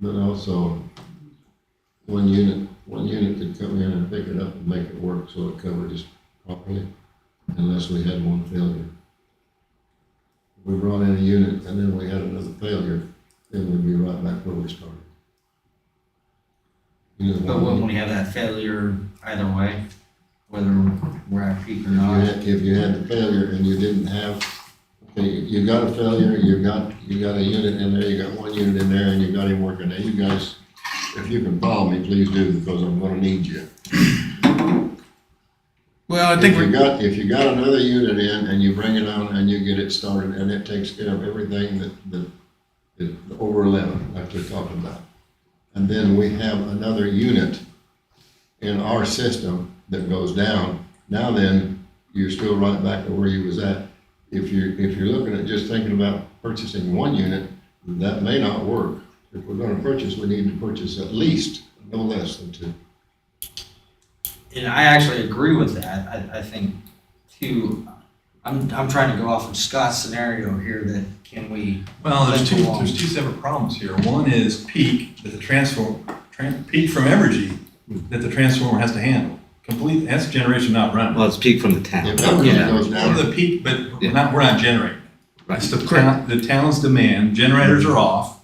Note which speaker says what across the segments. Speaker 1: But also, one unit, one unit could come in and pick it up and make it work so it covered us properly, unless we had one failure. If We brought in a unit and then we had another failure, then we'd be right back where we started. You know,
Speaker 2: But wouldn't
Speaker 1: one-
Speaker 2: we have that failure either way, whether we're at peak or
Speaker 1: if you
Speaker 2: not?
Speaker 1: had, if you had the failure and you didn't have, okay, you got a failure, you got, you got a unit in there, you got one unit in there and you got him working. Now you guys, if you can follow me, please do because I'm gonna need you.
Speaker 3: Well, I think
Speaker 1: If you
Speaker 3: we,
Speaker 1: got, if you got another unit in and you bring it on and you get it started and it takes care of everything that, that is over eleven, like you're talking about. And then we have another unit in our system that goes down. Now then, you're still right back to where you was at. If you're, if you're looking at just thinking about purchasing one unit, that may not work. If we're gonna purchase, we need to purchase at least no less than two.
Speaker 2: And I actually agree with that. I, I think too, I'm, I'm trying to go off of Scott's scenario here that can we,
Speaker 4: Well, there's two,
Speaker 2: Along.
Speaker 4: there's two separate problems here. One is peak that the transform, tran, peak from Evergy that the transformer has to handle. Complete, that's generation not run.
Speaker 5: Well, it's peak from the
Speaker 1: If
Speaker 5: town.
Speaker 1: that really
Speaker 2: Yeah.
Speaker 1: goes
Speaker 4: Well,
Speaker 1: down,
Speaker 4: the peak, but we're
Speaker 5: Yeah.
Speaker 4: not, we're not generating.
Speaker 5: Right.
Speaker 4: It's the town, the town's demand, generators are off.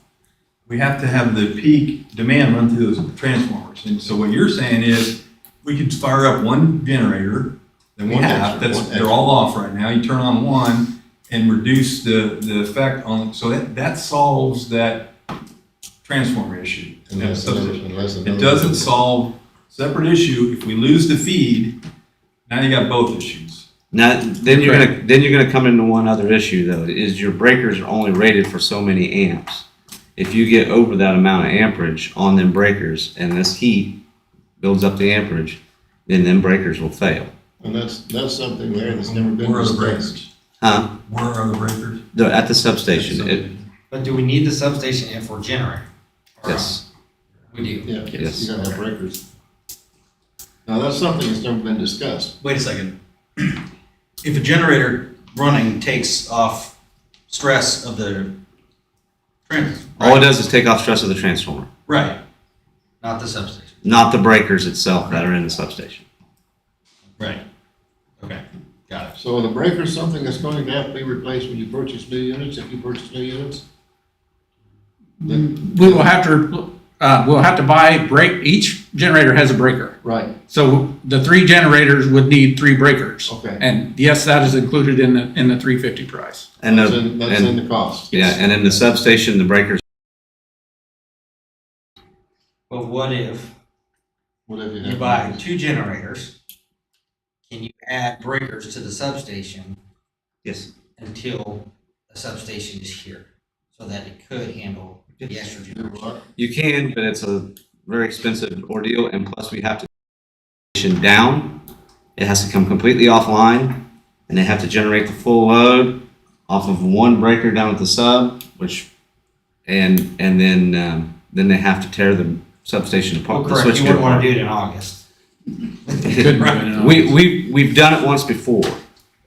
Speaker 4: We have to have the peak demand run through those transformers. And so what you're saying is, we could fire up one generator that we
Speaker 1: One
Speaker 4: have,
Speaker 1: extra,
Speaker 4: that's,
Speaker 1: one
Speaker 4: they're all off right now. You turn on one and reduce the, the effect on, so that, that solves that transformer issue. that
Speaker 1: unless, another-
Speaker 4: substation.
Speaker 1: unless another.
Speaker 4: It doesn't solve separate issue. If we lose the feed, now you got both issues.
Speaker 5: Now, then you're gonna, then you're gonna come into one other issue though, is your breakers are only rated for so many amps. If you get over that amount of amperage on them breakers and this heat builds up the amperage, then them breakers will fail.
Speaker 1: And that's, that's something there that's never been
Speaker 4: Where are the
Speaker 1: discussed.
Speaker 4: breakers?
Speaker 5: Huh?
Speaker 4: Where are the breakers?
Speaker 5: They're at the substation, it,
Speaker 2: but do we need the substation if we're generating? Or-
Speaker 5: yes,
Speaker 2: We do.
Speaker 1: Yeah,
Speaker 5: Yes.
Speaker 1: you gotta have breakers. Now, that's something that's never been discussed.
Speaker 6: Wait a second. If a generator running takes off stress of the trans,
Speaker 5: all it does is take off stress of the transformer,
Speaker 6: right,
Speaker 2: Not the substation.
Speaker 5: not the breakers itself that are in the substation.
Speaker 6: right. Okay, got it.
Speaker 1: So the breaker's something that's going to have to be replaced when you purchase new units, if you purchase new units?
Speaker 3: we will have to, uh, we'll have to buy break, each generator has a breaker.
Speaker 1: Right,
Speaker 3: So the three generators would need three breakers.
Speaker 1: Okay.
Speaker 3: And yes, that is included in the, in the three fifty price.
Speaker 5: And
Speaker 1: that's
Speaker 5: the,
Speaker 1: in, that's in
Speaker 5: and,
Speaker 1: the cost.
Speaker 5: yeah, and in the substation, the breakers,
Speaker 2: But what if
Speaker 1: Whatever you have.
Speaker 2: you buy two generators? Can you add breakers to the substation
Speaker 5: yes,
Speaker 2: until a substation is here, so that it could handle the extra
Speaker 1: You know
Speaker 2: generation.
Speaker 1: what?
Speaker 5: You can, but it's a very expensive ordeal, and plus we have to station down. It has to come completely offline, and they have to generate the full load off of one breaker down at the sub, which, and and then um, then they have to tear the substation
Speaker 2: Well,
Speaker 5: apart. the
Speaker 2: Oh, correct,
Speaker 5: switch
Speaker 2: you wouldn't wanna
Speaker 5: apart.
Speaker 2: do it in August.
Speaker 3: Couldn't do it in
Speaker 5: We we we've done it once before,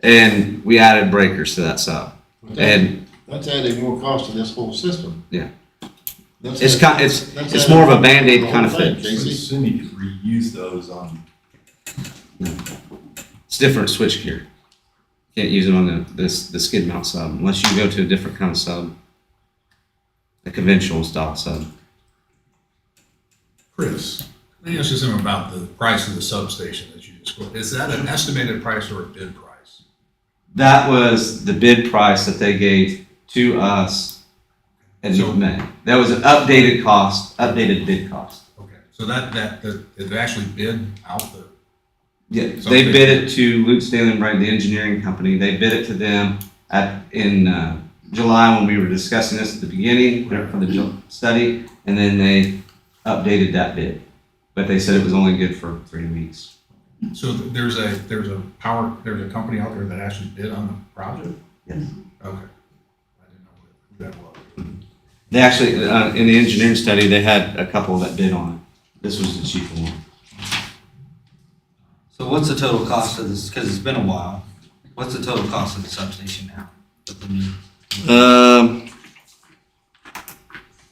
Speaker 5: and we added breakers to that sub,
Speaker 1: But that-
Speaker 5: and
Speaker 1: That's adding more cost to this whole system.
Speaker 5: Yeah.
Speaker 1: That's
Speaker 5: it's
Speaker 1: add-
Speaker 5: kind it's
Speaker 1: that's
Speaker 5: it's
Speaker 1: adding
Speaker 5: more of a
Speaker 1: more
Speaker 5: band aid
Speaker 1: to the
Speaker 5: kind of
Speaker 1: whole thing,
Speaker 5: thing.
Speaker 4: I
Speaker 1: Casey.
Speaker 4: assume you could reuse those on.
Speaker 5: It's different switch gear. Can't use it on the this the skid mount sub unless you go to a different kind of sub, a conventional style sub.
Speaker 7: Chris, let me ask you something about the price of the substation that you just quoted. Is that an estimated price or a bid price?
Speaker 5: That was the bid price that they gave to us in
Speaker 7: So-
Speaker 5: May. That was an updated cost, updated bid cost.
Speaker 7: Okay, so that, that, that, did they actually bid out the,
Speaker 5: Yeah,
Speaker 7: So
Speaker 5: they
Speaker 7: they-
Speaker 5: bid it to Luke Stanley and Bright, the engineering company. They bid it to them at in uh, July when we were discussing this at the beginning for the Ju- study, and then they updated that bid. But they said it was only good for three weeks.
Speaker 7: so there's a, there's a power, there's a company out there that actually bid on the project?
Speaker 5: Yes.
Speaker 7: Okay. I didn't know who that was.
Speaker 5: They actually uh, in the engineering study they had a couple that bid on it. This was the cheaper one.
Speaker 2: So what's the total cost of this, cause it's been a while, what's the total cost of the substation now? with the new-
Speaker 5: Um,